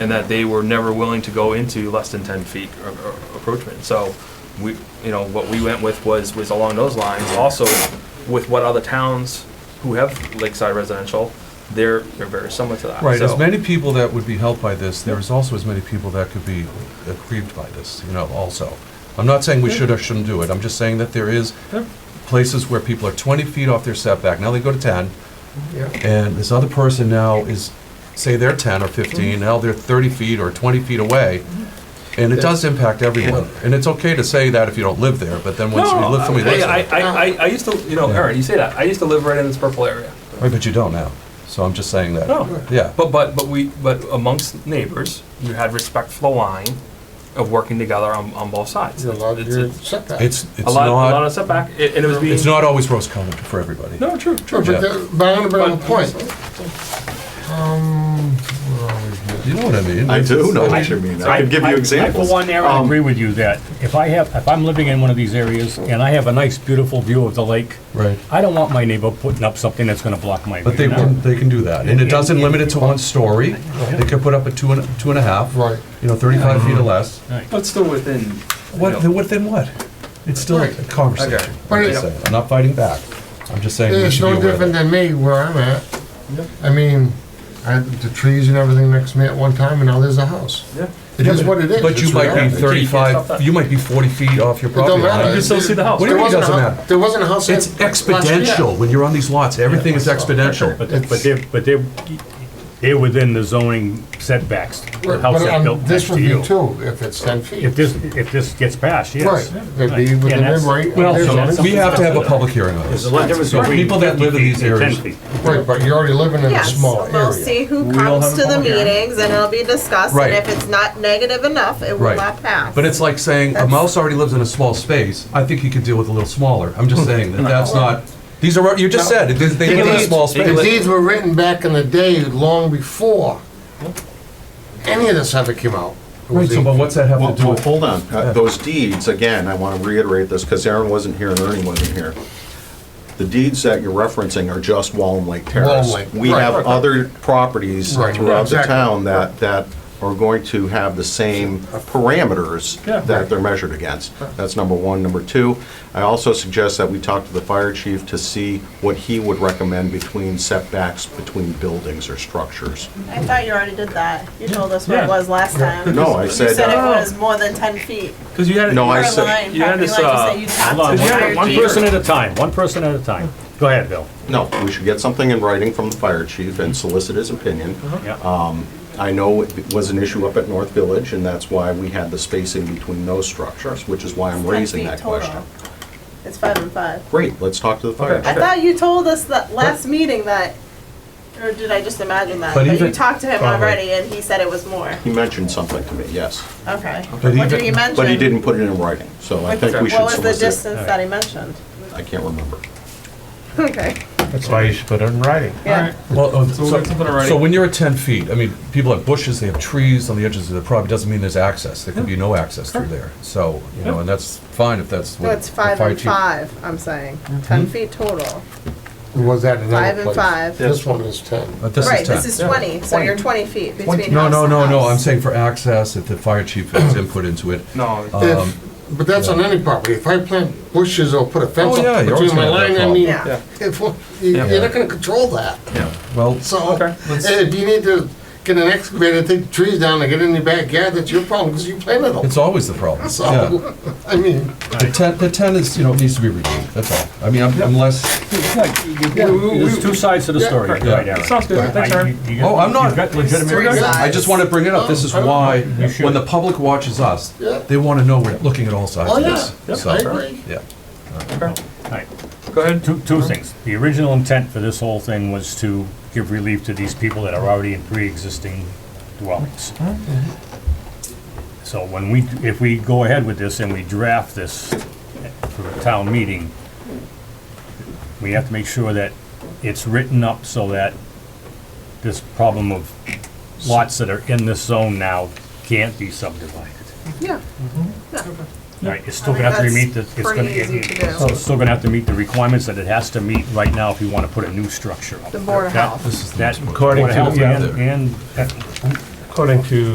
and that they were never willing to go into less than ten feet or- or approachment. So we, you know, what we went with was, was along those lines. Also, with what other towns who have lakeside residential, they're, they're very similar to that. Right, as So- many people that would be helped by this, there is also as many people that could be aggrieved by this, you know, also. I'm not saying we should or shouldn't do it, I'm just saying that there is Yep. places where people are 20 feet off their setback, now they go to 10, Yeah, and this other person now is, say they're 10 or 15, Mm-hmm. now they're 30 feet or 20 feet away, and it does impact everyone. And it's okay to say that if you don't live there, but then once you No, live, somebody lives I, I, there. I, I- I used to, you know, Yeah. Aaron, you say that, I used to live right in this purple area. Right, but you don't now, so I'm just saying that. No. Yeah, But, but, but we, but amongst neighbors, you had respect for the line of working together on, on both sides. you're allowed It's- your it's setback. it's, it's A lot, a lot of not, setback, a- and it was being. it's not always rose-colored for everybody. No, true, But true. Yeah. the- but I'm gonna bring up a point. Um, where are we here? You know what I mean? I do know what It's- you mean. I could give you I, examples. for one, Aaron, Um, agree with you that if I have, if I'm living in one of these areas and I have a nice, beautiful view of the lake, Right. I don't want my neighbor putting up something that's gonna block my view. But they No. can, they can do that, and it doesn't limit it to one story, they could put up a two and, two and a half. Right. You know, thirty-five feet or less, But still within. what, then what, then what? It's still a Right. Okay. conversation, I'm just saying, I'm not fighting back, I'm just saying we It's should be no aware of different that. than me where I'm at. I mean, I, the trees and everything next to me at one time, and now there's a house. Yeah. It is what it is. But you It's might be reality. stop that. thirty-five, you might be forty feet off your It don't property matter. You line. can still see the house. What do you There mean it wasn't a doesn't hou- matter? There wasn't a house. It's at- last year. exponential, when you're on these lots, everything is exponential. But, they- but they're, but they're, they're within the zoning setbacks, the Right, house But that um, built next this would to be you. two, if it's ten If feet. this, if this gets passed, Right, yes. they'd be And within their that's- right. Well, their so zoning. We have to have a public hearing on There's this. a lot of difference So between people that live in 50 these feet and areas- 10 feet. Right, but you're already living in a Yes, small we'll area. see who We all have comes a to the public hearing. meetings, and it'll be discussed, Right. and if it's not negative enough, it will Right. not pass. But it's like saying, a mouse already lives in a small space, I think he could deal with a little smaller. I'm just saying that that's not, these are, you just said, they they live in a small The space. deeds were written back in the day, long before any of this ever came out. It Right, was so, but what's that have Well, to do well, with? hold on. Uh, Those deeds, again, I want to reiterate this because Aaron wasn't here and Ernie wasn't here. The deeds that you're referencing are just Wallen Lake Terrace. Walnut Lake, We right. have other properties Right, throughout the exactly. town that, that are going to have the same parameters Yeah. that they're measured against. That's number one. Number two, I also suggest that we talk to the fire chief to see what he would recommend between setbacks between buildings or structures. I thought you already did that. You told us what Yeah. it was last time. No, I You said, said it uh, was more than ten feet. Because you had. No, I Your said- line, you had property this, line, you uh, said you tapped Hold on, to one higher one tier. person at a time, one person at a time. Go ahead, Bill. no, we should get something in writing from the fire chief and solicit his opinion. Yeah. I know it was an issue up at North Village, and that's why we had the spacing between those structures, which is why I'm 10 raising feet that total. question. It's five and five. Great, let's talk to the fire Okay. I chief. thought you told us that last meeting that, or did I just imagine that? But But you even- talked to him Probably. already, and he said it was more. He mentioned something to me, yes, Okay. But What even- did he mention? but he didn't put it in writing, so I think we should What was the solicit. distance that he mentioned? I can't remember. Okay. That's why you should put it in writing. Yeah. Well, uh, we'll So get something already. so when you're at ten feet, I mean, people have bushes, they have trees on the edges of the property, doesn't mean there's access. There could be no access through there, so, you know, and that's fine if that's what. No, it's the five fire and chief- five, I'm saying. Ten feet total. Was that another Five and place? five. This one is ten. But Uh, this Right, is this ten. is twenty, so you're twenty feet between No, house no, and no, no, house. I'm saying for access, if the fire chief has input into it. No, Um, If, but that's on any property, if I plant bushes or put a fence Oh, yeah, up you're always between my gonna have line, that I mean, Yeah. if, you- Yeah. you're not gonna control that, Well, so. Okay. And if you need to get an excavator, take the trees down and get in your backyard, that's your problem, because you planted them, it's always the problem, yeah. so, I mean. The ten, the ten is, you know, needs to be reviewed, that's all. I mean, I'm- unless, There's two sides to the story, right, Yeah. Aaron? sounds good, thanks, I- Aaron. you- you- Oh, I'm not- You've got legitimate Three reasons. sides. I just want to bring it up, Oh, this is why, when the public watches us, Yeah. they want to know we're looking at all sides Oh, of yeah. this. Yeah, So, I agree. Yeah. Right. Go ahead. Two, two things. The original intent for this whole thing was to give relief to these people that are already in pre-existing dwellings. So when we, if we go ahead with this and we draft this for a town meeting, we have to make sure that it's written up so that this problem of lots that are in this zone now can't be subdivided. Yeah. Right, it's still I think gonna have to that's meet the, it's gonna, pretty easy to do. it- it's still gonna have to meet the requirements that it has to meet right now if you wanna put a new structure up. The Board of That- Health. This is the- That, Board According of to- Health yeah, and, there. and According to